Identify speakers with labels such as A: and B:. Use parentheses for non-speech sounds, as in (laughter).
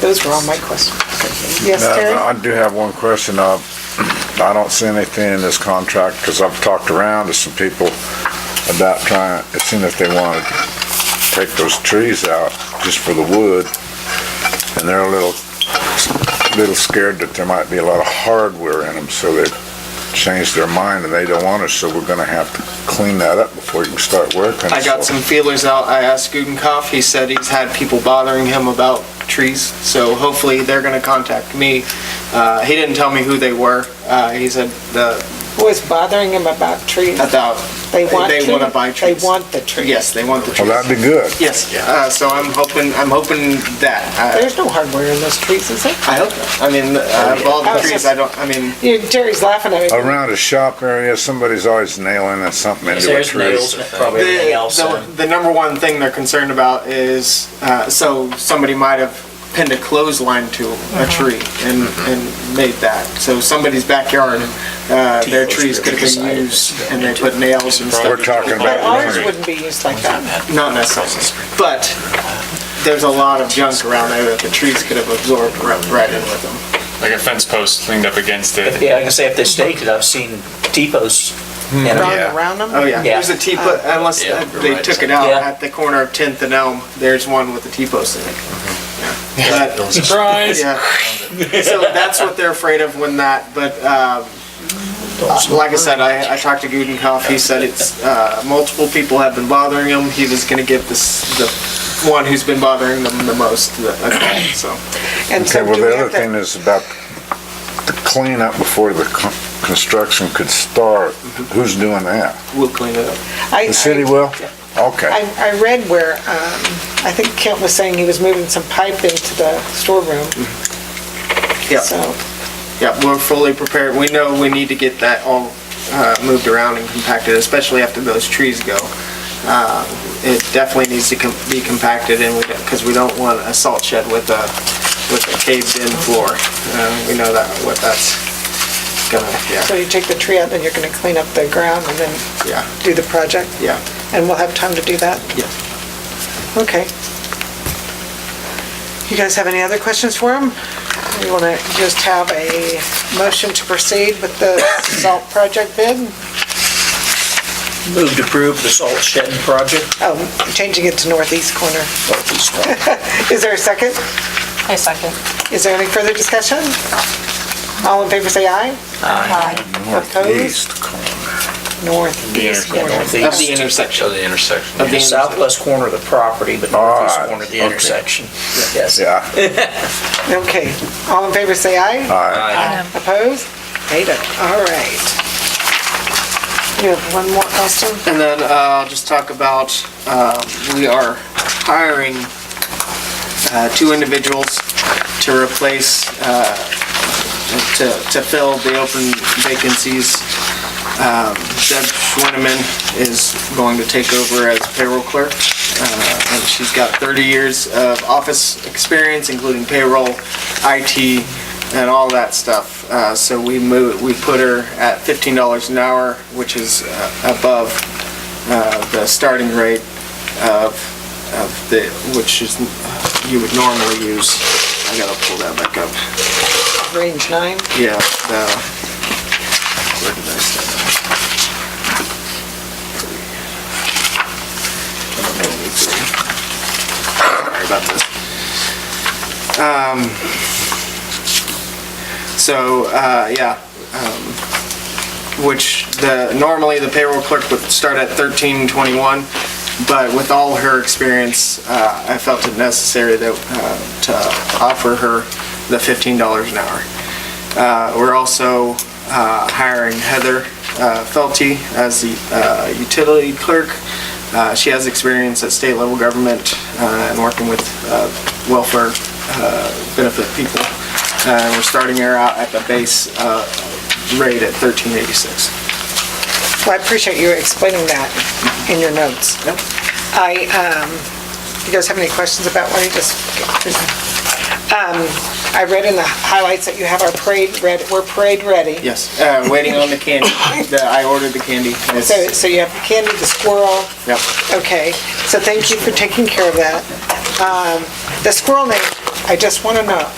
A: Those were all my questions. Yes,
B: Now,
A: Terry?
B: I do have one question. Uh, I don't see anything in this contract, because I've talked around to some people about trying, seeing if they want to take those trees out just for the wood, and they're a little, little scared that there might be a lot of hardware in them, so they changed their mind and they don't want it, so we're gonna have to clean that up before you can start working.
C: I got some feelers out. I asked Gudenkauf. He said he's had people bothering him about trees, so hopefully they're going to contact me. Uh, he didn't tell me who they were. Uh, he said the
A: Was bothering him about trees?
C: about
A: They want
C: they
A: to.
C: wanna buy trees.
A: They want the trees.
C: yes, they want the
B: Well,
C: trees.
B: that'd be good.
C: yes. Uh, so I'm hoping I'm hoping that I,
A: There's no hardware in those trees, is there?
C: I hope. I mean, uh, of all
A: I
C: the
A: was
C: trees,
A: just-
C: I don't. I mean,
A: You- Terry's laughing at
C: Oh,
A: me.
B: Around a shop area, somebody's always nailing something into a
D: There's
B: tree.
D: nails, probably everything else.
C: The, the, the number one thing they're concerned about is, uh, so somebody might have pinned a clothesline to a tree and, and made that. So somebody's backyard, uh, their trees could have been used and they put nails and
B: We're
C: stuff.
B: talking
A: But
B: about
A: ours
B: laundry.
A: wouldn't be used like that.
C: Not necessarily, but there's a lot of junk around there that the trees could have absorbed right right in with them.
E: like a fence post leaned up against it.
D: Yeah, I can say if they staked it, I've seen depots. in 'em.
B: Hmm.
A: Round around them?
C: Oh, yeah, there's a T-post, unless
F: Yeah,
C: uh,
F: you're
C: they
F: right.
C: took it out
D: Yeah.
C: at the corner of 10th and Elm, there's one with a T-post in it. Yeah. But-
E: Surprise!
C: Yeah. So that's what they're afraid of when that, but, um, uh, like I said, I, I talked to Gudenkauf, he said it's, uh, multiple people have been bothering him, he was gonna give this, the one who's been bothering them the most, the, a call, so.
A: And
B: Okay,
A: so
B: well,
A: do we
B: the other
A: have to-
B: thing is about the cleanup before the con- construction could start. Who's doing that?
C: We'll clean it up.
A: Mm-hmm. I-
B: The city
A: I-
B: will? Okay.
A: I, I read where, um, I think Kent was saying he was moving some pipe into the storeroom,
C: Yeah,
A: so.
C: yeah, we're fully prepared, we know we need to get that all, uh, moved around and compacted, especially after those trees go. Uh, It definitely needs to com- be compacted and we, because we don't want a salt shed with a, with a caved-in floor. Uh, We know that, what that's gonna,
A: So
C: yeah,
A: you take the tree out, then you're gonna clean up the ground and then
C: yeah,
A: do the project?
C: yeah,
A: And we'll have time to do that?
C: yes.
A: Okay. You guys have any other questions for him? You want to just have a motion to proceed with the salt project bid?
D: Move to approve the salt shedding project.
A: Oh, changing it to northeast corner.
D: Northeast corner.
A: Is there a second?
G: I second.
A: Is there any further discussion? All in favor, say aye.
G: Aye.
A: Opposed?
B: Northeast corner.
A: Northeast
E: Yeah,
A: corner.
C: Of the
D: Northeast,
C: intersection.
F: Show the intersection.
C: Of the
D: the
C: intersection.
D: southwest corner of the property, but northeast
B: Ah,
D: corner of the
B: okay.
D: intersection. Yes.
A: (laughs)
B: Yeah.
A: Okay. All in favor, say aye.
B: All right.
F: Aye.
A: Opposed? Ada. All right. You have one more question?
C: And then uh, I'll just talk about, uh, we are hiring uh, two individuals to replace, uh, to to fill the open vacancies. Um, Deb Schwinneman is going to take over as payroll clerk, uh, and she's got 30 years of office experience, including payroll, IT, and all that stuff. Uh, So we move, we put her at $15 an hour, which is uh, above uh, the starting rate of, of the, which is, uh, you would normally use. I gotta pull that back up.
A: Range nine?
C: Yeah, Um, the, where did I set that? Sorry about this. Um, so, uh, yeah, um, which the, normally the payroll clerk would start at thirteen twenty-one, but with all her experience, uh, I felt it necessary that, uh, to offer her the fifteen dollars an hour. Uh, We're also uh, hiring Heather uh, Felty as the uh, utility clerk. Uh, She has experience at state level government uh, and working with uh, welfare uh, benefit people. Uh, We're starting her out at the base uh, rate at 1386.
A: Well, I appreciate you explaining that in your notes.
C: Yep.
A: I, um, you guys have any questions about what you just, um, I read in the highlights that you have our parade ready, we're parade ready.
C: Yes, uh, waiting on the candy. The- I ordered the candy. It's-
A: So, so you have the candy, the squirrel,
C: Yep.
A: okay. So thank you for taking care of that. Um, The squirrel name, I just want to know,